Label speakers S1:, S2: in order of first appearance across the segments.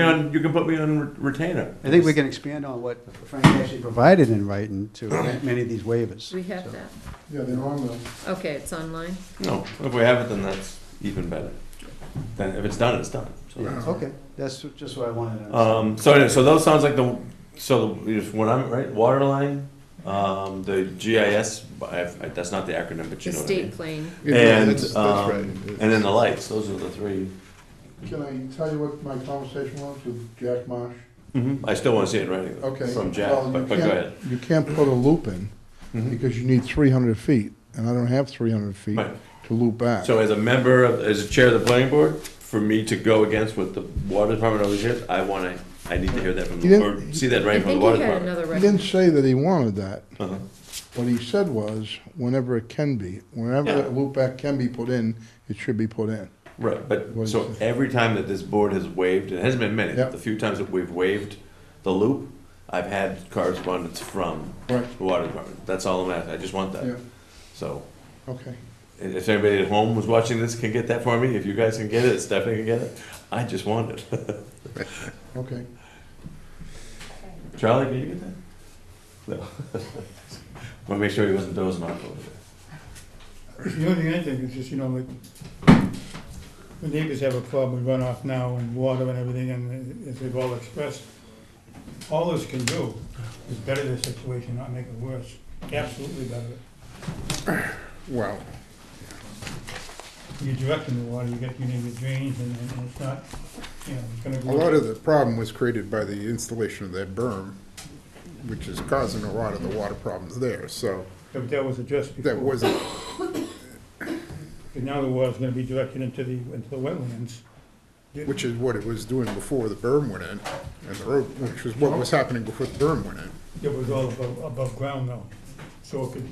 S1: me on- You can put me on re- retainer.
S2: I think we can expand on what Frank actually provided in writing to many of these waivers.
S3: We have that.
S4: Yeah, they're on the,
S3: Okay, it's online.
S1: No, if we have it, then that's even better. Then if it's done, it's done. So that's-
S2: Okay, that's just what I wanted to understand.
S1: Um, so anyway, so those sounds like the, so is what I'm, right, water line, um, the GIS, I, I- that's not the acronym, but you
S3: The
S1: know what I
S3: state
S1: mean.
S3: plane.
S4: Yeah,
S1: And,
S4: that's- that's
S1: um,
S4: right.
S1: And then the lights, those are the 3
S4: can I tell you what my conversation was with Jack Marsh?
S2: Mm-hmm.
S1: I still wanna see it in writing.
S4: Okay.
S1: From Jack,
S4: Well, you
S1: but, but go
S4: can't-
S1: ahead.
S4: You can't put a loop in
S1: Mhm.
S4: because you need three hundred feet, and I don't have three hundred feet
S1: Right.
S4: to loop back.
S1: So as a member of, as a chair of the planning board, for me to go against what the water department always hears, I wanna, I need to hear that from,
S4: You
S1: the- or
S4: didn't-
S1: see that
S3: I
S1: writing from the
S3: think
S1: water
S3: he had
S1: department.
S3: another
S4: He
S3: right.
S4: didn't say that he wanted that.
S1: Uh-huh.
S4: What he said was, whenever it can be, whenever
S1: Yeah.
S4: a loop back can be put in, it should be put in.
S1: Right,
S4: What
S1: but,
S4: is
S1: so
S4: it?
S1: every time that this board has waived, and it hasn't been many,
S4: Yep.
S1: the few times that we've waived the loop, I've had correspondence from
S4: Right.
S1: the water department. That's all I'm asking, I just want
S4: Yeah,
S1: that. So,
S4: okay.
S1: i- if anybody at home was watching this can get that for me, if you guys can get it, if Stephanie can get it, I just want it.
S4: Okay.
S1: Charlie, can you get that? No. Want to make sure he wasn't dozing off over there.
S5: The only thing I think is just, you know, like, the neighbors have a problem with runoff now and water and everything, and as they've all expressed, all this can do is better the situation, not make it worse, absolutely better. it.
S4: Wow.
S5: You're directing the water, you get, you need the drains, and and it's not, you know, it's gonna
S6: A
S5: go.
S6: lot of the problem was created by the installation of that berm, which is causing a lot of the water problems there, so
S5: But that was addressed before.
S6: that wasn't,
S5: But now the water's gonna be directed into the, into the wetlands.
S6: which is what it was doing before the berm went in, and the road, which was what was happening before the berm went in.
S5: It was all above, above ground though, so it could.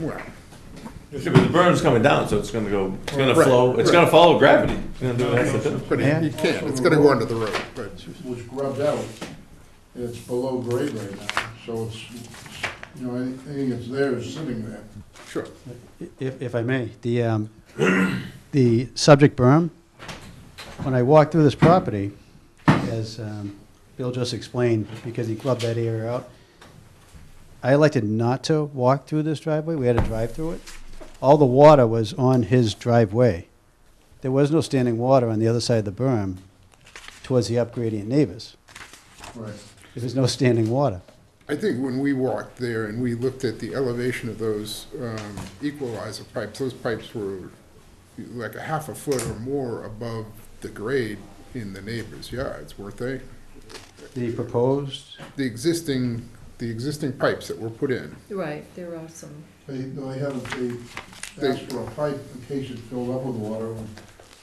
S6: Well,
S5: just-
S1: Yeah, but the berm's coming down, so it's gonna go, it's gonna
S6: Right,
S1: flow, it's
S6: right.
S1: gonna follow gravity. It's gonna do what it has to do.
S6: but you can't, it's gonna go under the road, but
S4: was grubbed out, it's below grade right now, so it's, you know, anything that's there is sitting there.
S6: sure.
S2: If, if I may, the, um, the subject berm, when I walked through this property, as um, Bill just explained, because he clubbed that area out, I elected not to walk through this driveway, we had to drive through it. All the water was on his driveway. There was no standing water on the other side of the berm towards the upgradient neighbors.
S4: Right.
S2: There was no standing water.
S6: I think when we walked there and we looked at the elevation of those um, equalizer pipes, those pipes were like a half a foot or more above the grade in the neighbors' yards, weren't they?
S2: The proposed,
S6: The existing, the existing pipes that were put in,
S3: Right, there are some.
S4: They, they haven't, they asked for a pipe in case it filled up with water.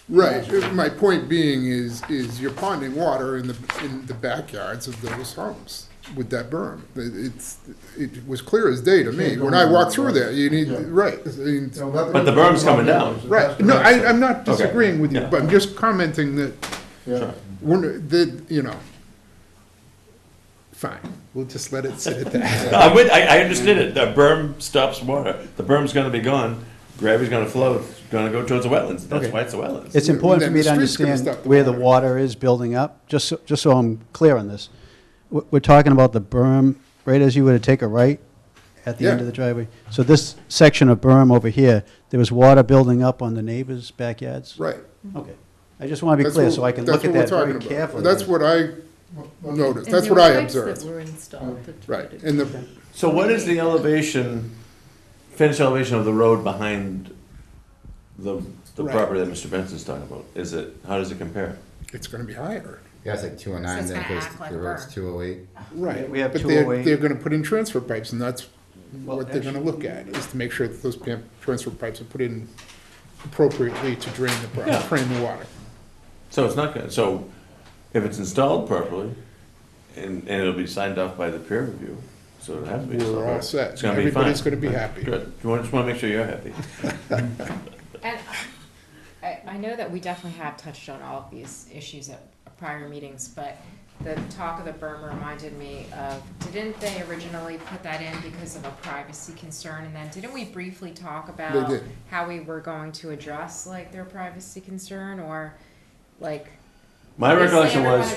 S6: Right, my point being is, is you're ponding water in the, in the backyards of those homes with that berm. It's, it was clear as day to me, when I walked through there, you need, right, I mean,
S1: But the berm's coming down.
S6: right, no, I, I'm not
S1: Okay.
S6: disagreeing with you,
S1: Yeah.
S6: but I'm just commenting that,
S4: Yeah,
S6: we're, that, you know, fine, we'll just let it sit at that.
S1: No, I would, I, I understood it, the berm stops water, the berm's gonna be gone, gravity's gonna flow, it's gonna go towards the wetlands, that's
S2: Okay.
S1: why it's the wetlands.
S2: It's important for
S6: then
S2: me
S6: the
S2: to
S6: street's gonna
S2: understand
S6: stop the
S2: where the
S6: water.
S2: water is building up, just, so- just so I'm clear on this. We're, we're talking about the berm, right as you were to take a right at the end
S6: Yeah.
S2: of the driveway. So this section of berm over here, there was water building up on the neighbors' backyards?
S6: Right.
S2: Okay. I just want to be
S6: That's
S2: clear,
S6: what-
S2: so I can look
S6: that's
S2: at
S6: what we're
S2: that very
S6: talking about.
S2: carefully.
S6: That's what I noticed,
S3: And
S6: that's
S3: there
S6: what I
S3: were pipes
S6: observed,
S3: That were installed. that
S6: right,
S3: provided-
S6: and the,
S1: So what is the elevation, finished elevation of the road behind the, the
S6: Right.
S1: property that Mr. Benson's talking about? Is it, how does it compare?
S6: it's gonna be higher.
S7: Yeah, it's like two oh nine,
S8: So it's
S7: then it
S8: gonna
S7: goes,
S8: act like
S7: the road's
S8: burn.
S7: two oh eight.
S6: Right.
S2: We have
S6: But they're,
S2: 208.
S6: they're gonna put in transfer pipes, and that's
S2: Well,
S6: what they're gonna look at, is to make sure that those pam- transfer pipes are put in appropriately to drain the, pro-
S1: Yeah.
S6: drain the water.
S1: So it's not gonna, so if it's installed properly, and, and it'll be signed off by the peer review, so it has to be.
S6: We're
S1: installed
S6: all
S1: properly.
S6: set.
S1: It's gonna be fine.
S6: Everybody's gonna be happy.
S1: Good, you want, just wanna make sure you're happy.
S8: And I, I know that we definitely have touched on all of these issues at prior meetings, but the talk of the berm reminded me of, didn't they originally put that in because of a privacy concern? And then didn't we briefly talk about
S6: did.
S8: how we were going to address like their privacy concern or like?
S1: My
S8: Obviously,
S1: recollection was,
S8: everyone